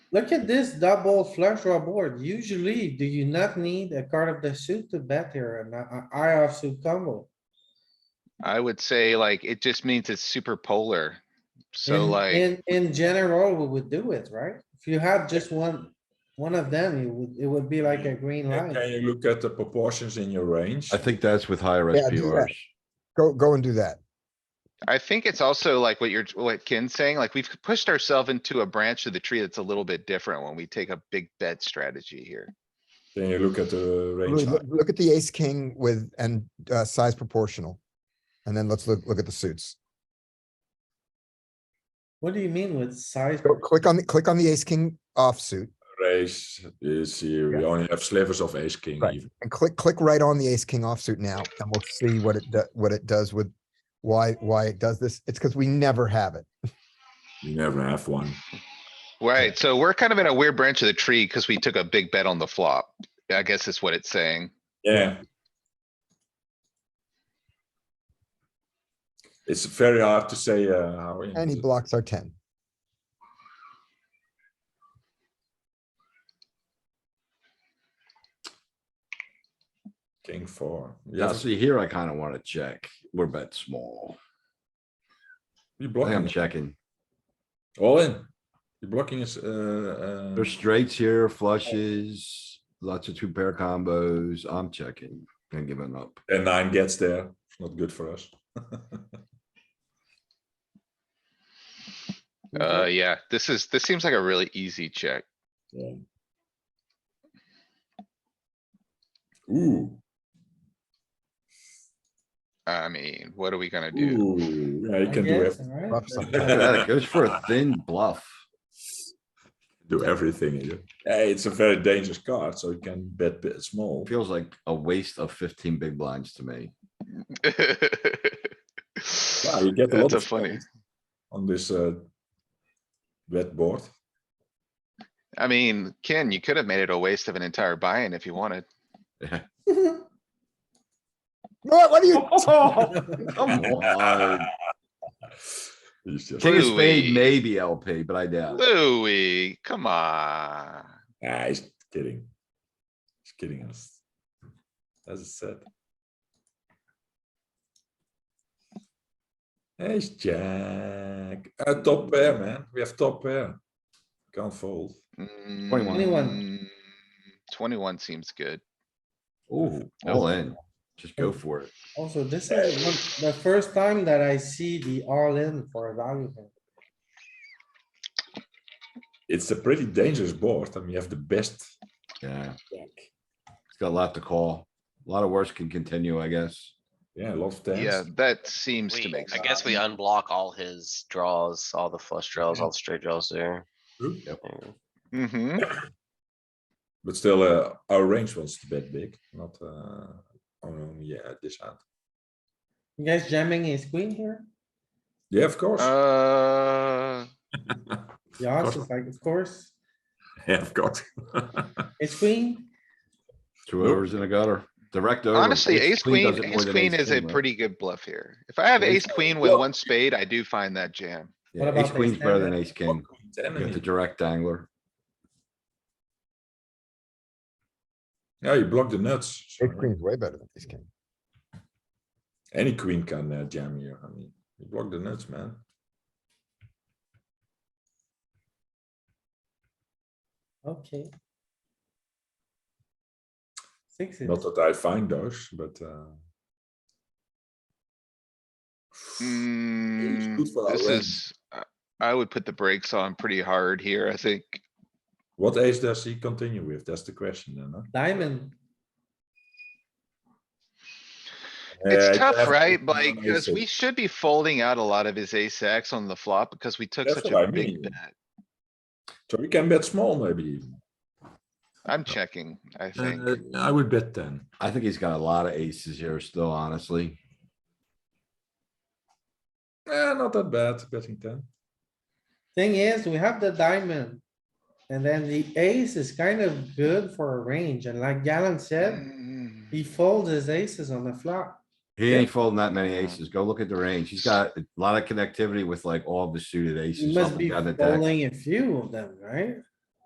Look at this double flush draw board. Usually, do you not need a card of the suit to bet here and I offsuit combo? I would say like, it just means it's super polar. So In- like, In, in general, we would do it, right? If you had just one, one of them, you would, it would be like a green Can line. can you look at the proportions in your range? I think that's with higher Yeah, do that. SPRs. Go, go and do that. I think it's also like what you're, what Ken's saying, like we've pushed ourselves into a branch of the tree that's a little bit different when we take a big bet strategy here. Can you look at the range? Louis, height? Look look at the ace, king with, and, uh, size proportional. And then let's look, look at the suits. What do you mean with size? Go, click on, the click on the ace, king offsuit Raise is here, we only have slivers of ace king Right. even. and click, click right on the ace, king offsuit now, and we'll see what it, do- what it does with, why, why it does this. It's because we never have it. You never have one. Right, so we're kind of in a weird branch of the tree because we took a big bet on the flop. I guess is what it's saying. Yeah. It's very hard to say uh, how. in- And he blocks our ten. King four. Yeah, Yeah, see here, I kinda wanna check. We're bet small. you I think I'm blocking checking. all in. You're blocking is uh, uh, There's straights here, flushes, lots of two pair combos. I'm checking and giving up. and nine gets there. It's not good for us. Uh, yeah, this is, this seems like a really easy check. Yeah. Ooh, I mean, what are we gonna do? ooh, yeah, you I can do guess, it. right? Rough side. Look at that, It goes for a thin bluff. do everything in it. Yeah, it's a very dangerous card, so you can bet bit small. Feels like a waste of fifteen big blinds to me. Wow, you get a lot That's a of funny. points on this uh, bet board. I mean, Ken, you could have made it a waste of an entire buy-in if you wanted. Yeah, What, what are you? Come on. He's just- King of spade, Louis. maybe LP, but I doubt. it. Louis, come on. Nah, ah, he's kidding. He's kidding us. As I said. Hey, it's jack. Uh, top pair, man. We have top pair. Can't fold. 21. Anyone? Mm, Twenty-one seems good. Ooh, all in. Just go for it. Also, this is one- the first time that I see the all in for a value. hand. It's a pretty dangerous board, and we have the best. Yeah, Jack. it's got a lot to call. A lot of worse can continue, I guess. Yeah, a lot of tens. Yeah, that seems to We- make I sense. guess we unblock all his draws, all the flush draws, all the straight draws there. True. Yeah. hmm But still, uh, our range was a bit big, not uh, on yeah this hand. You guys jamming a queen here? Yeah, of course. Uh, Yeah, it's like, of course, yeah, of course. it's queen. Two Nope. overs in a gutter, direct over. honestly, ace queen, Oh, does it more ace than queen is a right? pretty good bluff here. If I have Ace- ace queen with Well- one spade, I do find that jam. Yeah, What about ace ace queen's better than ten? ace king. You have the direct angler. yeah, you block the nuts. Ace sorry. queen's way better than ace king. Any queen can uh, jam you. I mean, you block the nuts, man. Okay. Sixes. Not that I find those, but uh, Mm, good for our this range. is, I- I would put the brakes on pretty hard here, I think. what ace does he continue with? That's the question, then. Huh? Diamond. Yeah, It's you have tough, to right? continue Like, on cause aces. we should be folding out a lot of his ace X on the flop because we took That's such what a I big mean. bet. so we can bet small, maybe. even. I'm checking, I think. Uh, I would bet ten. I think he's got a lot of aces here still, honestly. Eh, not that bad betting ten. Thing is, we have the diamond. And then the ace is kind of good for a range. And like Galen said, Mm, he folds his aces on the flop. He ain't folding that many aces. Go look at the range. He's got a lot of connectivity with like all the suited He aces. up must and be down the deck. folding a few of them, right?